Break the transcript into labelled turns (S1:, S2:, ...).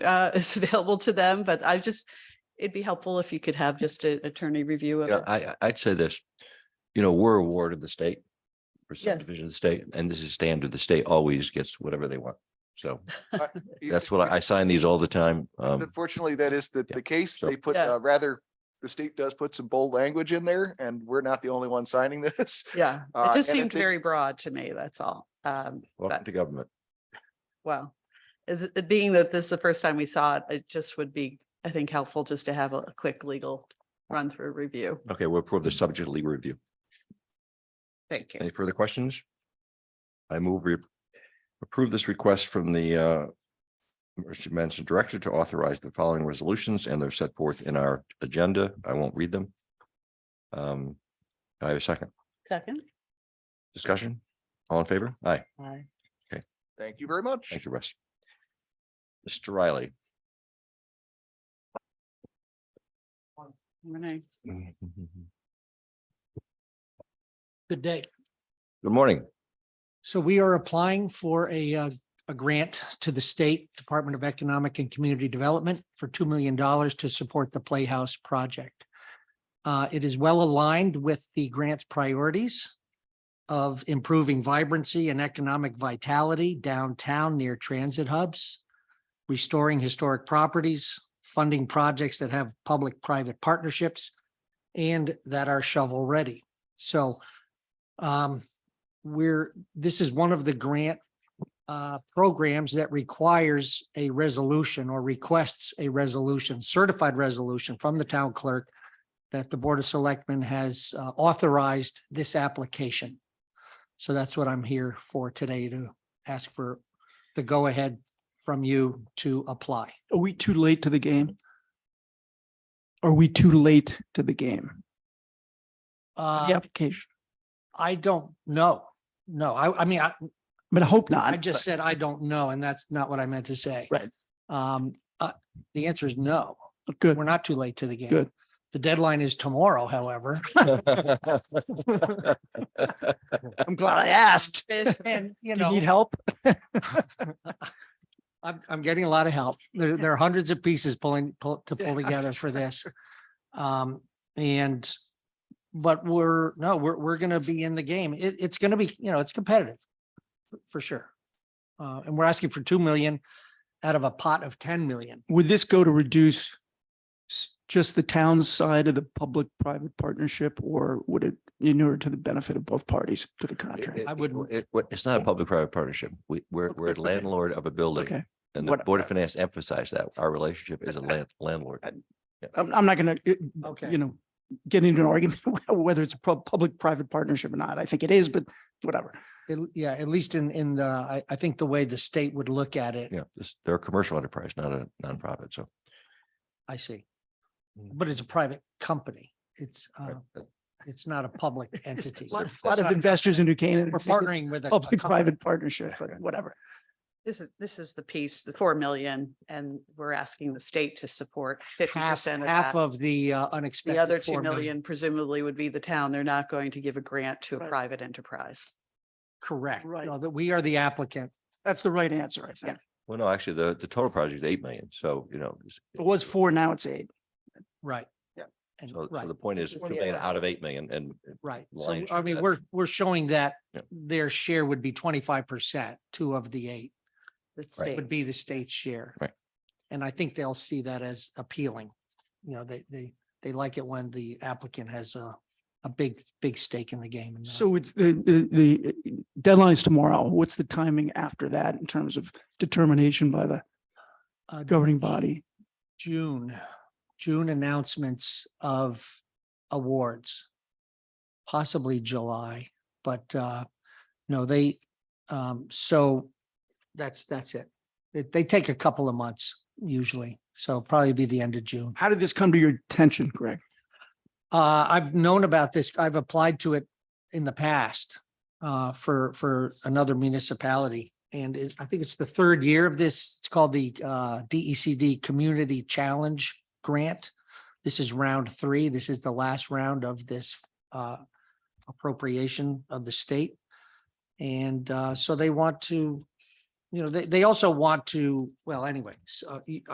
S1: uh, is available to them, but I just, it'd be helpful if you could have just an attorney review of
S2: Yeah,
S1: it.
S2: I, I- I'd say this, you know, we're a ward of the state. Or
S1: Yes.
S2: subdivision of the state, and this is standard. The state always gets whatever they want. So that's what I, I
S3: Yes,
S2: sign these all the time. Um,
S3: Unfortunately, that is the,
S2: yeah,
S3: the case.
S2: so-
S3: They put,
S1: Yeah.
S3: uh, rather, the state does put some bold language in there and we're not the only one signing this.
S1: Yeah,
S3: Uh,
S1: it just
S3: and I
S1: seemed
S3: think-
S1: very broad to me, that's all. Um,
S2: welcome
S1: but,
S2: to government.
S1: well, it- it being that this is the first time we saw it, it just would be, I think, helpful just to have a a quick legal run through review.
S2: Okay, we'll approve the subject of legal review.
S1: Thank
S2: Any
S1: you.
S2: further questions? I move we approve this request from the uh. Emergency Management Director to authorize the following resolutions and they're set forth in our agenda. I won't read them. Um, I have a second
S1: Second.
S2: discussion. All in favor? Aye.
S1: Aye.
S3: Thank you very much.
S2: Thank you, Russ. Mr. Riley.
S1: Renee.
S2: Good
S4: Good day.
S2: morning.
S4: So we are applying for a, uh, a grant to the State Department of Economic and Community Development for $2 million to support the Playhouse project. Uh, It is well aligned with the grant's priorities of improving vibrancy and economic vitality downtown near transit hubs, restoring historic properties, funding projects that have public-private partnerships, and that are shovel-ready. So um, we're, this is one of the grant uh, programs that requires a resolution or requests a resolution, certified resolution from the town clerk that the Board of Selectmen has uh, authorized this application. So that's what I'm here for today to ask for the go-ahead from you to apply.
S5: Are we too late to the game? Are we too late to the game?
S4: Uh,
S5: The application,
S4: I don't know. No, I, I mean, I,
S5: but I hope not.
S4: I just said I don't know, and that's not what I meant to say.
S5: Right.
S4: Um, uh, the answer is no.
S5: but Good.
S4: We're not too late to the game.
S5: Good.
S4: The deadline is tomorrow, however,
S5: I'm glad I asked.
S1: Fish.
S4: and you
S5: Do you
S4: know,
S5: need help?
S4: I'm, I'm getting a lot of help. There, there are hundreds of pieces pulling, pull, to pull
S5: Yeah,
S4: together
S5: I'm
S4: for this. Um, and, but we're, no, we're, we're gonna be in the game. It, it's gonna be, you know, it's competitive for sure. Uh, and we're asking for two million out of a pot of ten million.
S5: Would this go to reduce s- just the town side of the public-private partnership or would it inure to the benefit of both parties to the contract?
S4: I wouldn't-
S2: It, it- it's not a public-private partnership. We, we're, we're a
S5: Okay.
S2: landlord of a building.
S5: Okay,
S2: And the
S5: What-
S2: Board of Finance emphasized that our relationship is a land, landlord.
S5: I'm, I'm not gonna, uh,
S4: Okay.
S5: you know, get into an argument whether it's a pub- public-private partnership or not. I think it is, but whatever.
S4: At- Yeah, at least in, in the, I, I think the way the state would look at it,
S2: Yeah, this, they're a commercial enterprise, not a nonprofit. So
S4: I see.
S2: Mm.
S4: But it's a private company. It's, uh,
S2: right,
S5: Oh.
S2: that-
S4: it's not a public entity.
S5: A lot
S4: That's
S5: of- lot of
S4: not-
S5: investors in New Canaan.
S4: We're partnering with a. a company.
S5: Public-private partnership, but whatever.
S1: This is, this is the piece, the four million, and we're asking the state to support fifty
S4: Half,
S1: percent of
S4: half
S1: that.
S4: of the uh,
S1: The
S4: unexpected.
S1: other two
S4: 4
S1: million presumably would be the town. They're not going to give a grant to a
S5: Right.
S1: private enterprise.
S4: Correct.
S5: Right.
S4: No, that we are the applicant.
S5: That's the right answer, I think.
S2: Well, no, actually, the, the total project is eight million. So, you know. it's-
S5: It was four, now it's eight.
S4: Right.
S5: Yeah.
S4: And,
S2: So,
S4: right,
S2: so the point is,
S1: This
S2: two
S1: is-
S2: million out of eight million and
S4: right. So,
S2: lion's
S4: I
S2: share,
S4: mean,
S2: that's-
S4: we're, we're showing that
S2: Yeah.
S4: their share would be twenty-five percent, two of the eight.
S1: The
S2: Right.
S1: state.
S4: would be the state's share.
S2: Right.
S4: And I think they'll see that as appealing. You know, they, they, they like it when the applicant has a, a big, big stake in the game. and not-
S5: So it's the, the, the uh, deadline is tomorrow. What's the timing after that in terms of determination by the
S4: Uh,
S5: governing body?
S4: June, June announcements of awards. Possibly July, but, uh, no, they, um, so that's, that's it. They, they take a couple of months usually, so probably be the end of June.
S5: How did this come to your attention, Greg?
S4: Uh, I've known about this. I've applied to it in the past uh, for, for another municipality. And it, I think it's the third year of this. It's called the uh, DECD Community Challenge Grant. This is round three. This is the last round of this uh, appropriation of the state. And uh, so they want to, you know, they, they also want to, well, anyway, so uh, you-